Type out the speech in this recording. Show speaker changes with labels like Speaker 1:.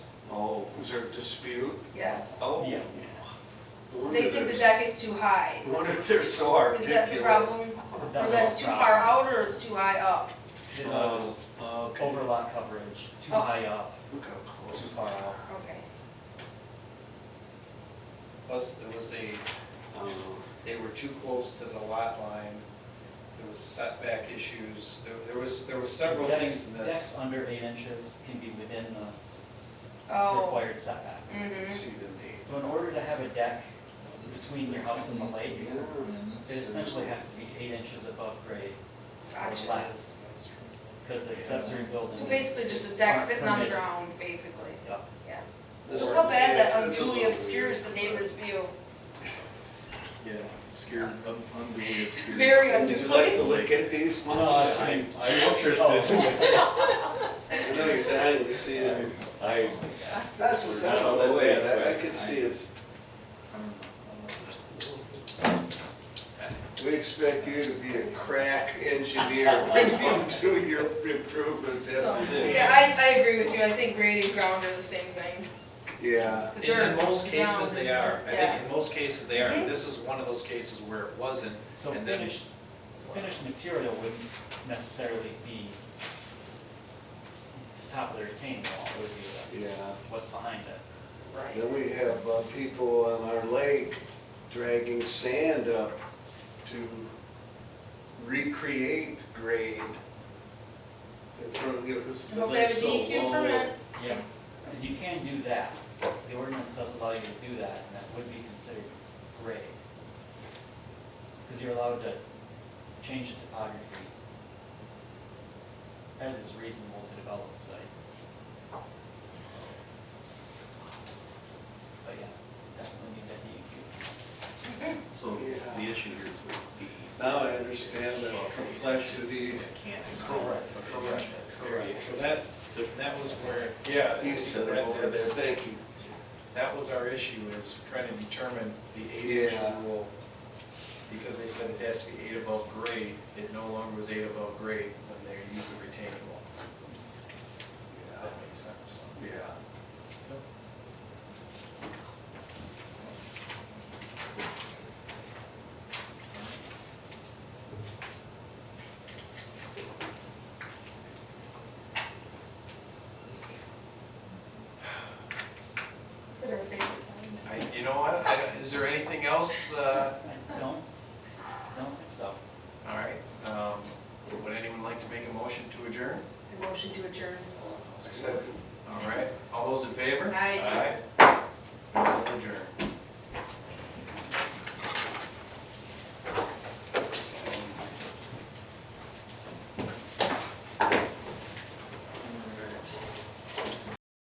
Speaker 1: Oh, Is there a dispute?
Speaker 2: yes.
Speaker 1: Oh.
Speaker 3: Yeah.
Speaker 1: No wonder
Speaker 2: They think that
Speaker 1: there's-
Speaker 2: that gets too high.
Speaker 1: no Wonder they're so
Speaker 2: Is that the
Speaker 1: articulate.
Speaker 2: problem? Or
Speaker 3: That's
Speaker 2: that's
Speaker 3: the
Speaker 2: too far
Speaker 3: problem.
Speaker 2: out or it's too high up?
Speaker 3: It was
Speaker 1: Oh, okay.
Speaker 3: overlap coverage, too
Speaker 2: Oh.
Speaker 3: high up,
Speaker 1: Look how
Speaker 3: too
Speaker 1: close.
Speaker 3: far out.
Speaker 2: Okay.
Speaker 4: Plus, there Uh, was a, um, they were too close to the lot line, there was setback issues, there- there was, there were several
Speaker 3: Decks,
Speaker 4: things in this.
Speaker 3: decks under eight inches can be within the
Speaker 2: Oh.
Speaker 3: required setback.
Speaker 1: You can
Speaker 2: Mm-hmm.
Speaker 1: See the name.
Speaker 3: So in order to have a deck between your house and the lake, it essentially has to be eight inches above grade or
Speaker 2: Gotcha.
Speaker 3: less, because accessory buildings.
Speaker 2: So basically just a deck
Speaker 3: aren't
Speaker 2: sitting on the
Speaker 3: permitted.
Speaker 2: ground, basically,
Speaker 3: Yeah.
Speaker 2: yeah.
Speaker 1: This-
Speaker 2: Look how bad that
Speaker 1: That's a
Speaker 2: unduly
Speaker 1: little
Speaker 2: obscures the
Speaker 1: weird.
Speaker 2: neighbor's view.
Speaker 5: Yeah, obscure, un- unduly obscure.
Speaker 2: Very
Speaker 1: Would you like to look at these?
Speaker 3: No, I-
Speaker 5: I'm, I'm
Speaker 1: Oh,
Speaker 5: interested.
Speaker 1: I know you're dying to see it.
Speaker 5: I,
Speaker 1: That's just not all that bad, I, I could see it's, we expect you to be a crack engineer when you do your improvements
Speaker 2: So,
Speaker 1: after
Speaker 2: yeah,
Speaker 1: this.
Speaker 2: I, I agree with you, I think grade and ground are the same thing.
Speaker 1: Yeah,
Speaker 2: It's the
Speaker 4: In in
Speaker 2: dirt.
Speaker 4: most
Speaker 2: the ground,
Speaker 4: cases, they
Speaker 2: isn't it?
Speaker 4: are, I
Speaker 2: Yeah.
Speaker 4: think in most cases, they are,
Speaker 2: Mhm.
Speaker 4: this is one of those cases where it wasn't,
Speaker 3: So
Speaker 4: and then.
Speaker 3: finished, finished material wouldn't necessarily be the top of the retaining wall, it would be
Speaker 1: yeah.
Speaker 3: the- what's behind it.
Speaker 2: Right.
Speaker 1: Then we have uh, people on our lake dragging sand up to recreate grade. In front of, you know, 'cause the
Speaker 2: Hope they have a
Speaker 1: lake's so
Speaker 2: DEQ
Speaker 1: low.
Speaker 2: permit.
Speaker 3: Yeah. Because you can do that, the ordinance does allow you to do that, and that would be considered grade. Because you're allowed to change the topography as is reasonable to develop the site. But yeah, definitely need that E DEQ.
Speaker 5: so the issue here is with the.
Speaker 1: Now I understand the complexities.
Speaker 5: Can't.
Speaker 1: Correct, correct, correct.
Speaker 4: So that, that was where, yeah.
Speaker 1: You said it over there, thank you.
Speaker 4: That was our issue, is trying to determine the eight inch
Speaker 1: Yeah.
Speaker 4: rule. Because they said it has to be eight above grade, it no longer was eight above grade when they used the retaining wall, if that makes sense.
Speaker 1: Yeah,
Speaker 2: They're a favorite one.
Speaker 4: I, you know what, I, is there anything else, uh,
Speaker 3: I don't, don't think so.
Speaker 4: all right, um, would anyone like to make a motion to adjourn?
Speaker 2: A Motion to adjourn.
Speaker 1: I said.
Speaker 4: All right, all those in favor?
Speaker 2: Aye.
Speaker 4: Aye.